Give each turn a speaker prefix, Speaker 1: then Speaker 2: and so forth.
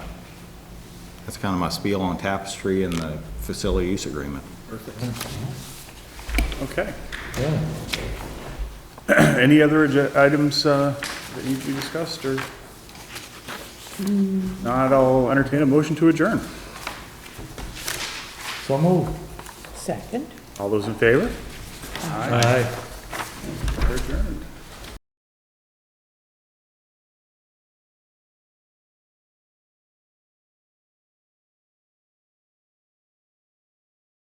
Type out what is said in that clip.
Speaker 1: That's kind of my spiel on tapestry and the facility use agreement.
Speaker 2: Okay. Any other agen- items uh, that need to be discussed, or? Not, I'll entertain a motion to adjourn.
Speaker 3: So move.
Speaker 4: Second.
Speaker 2: All those in favor?
Speaker 3: Aye.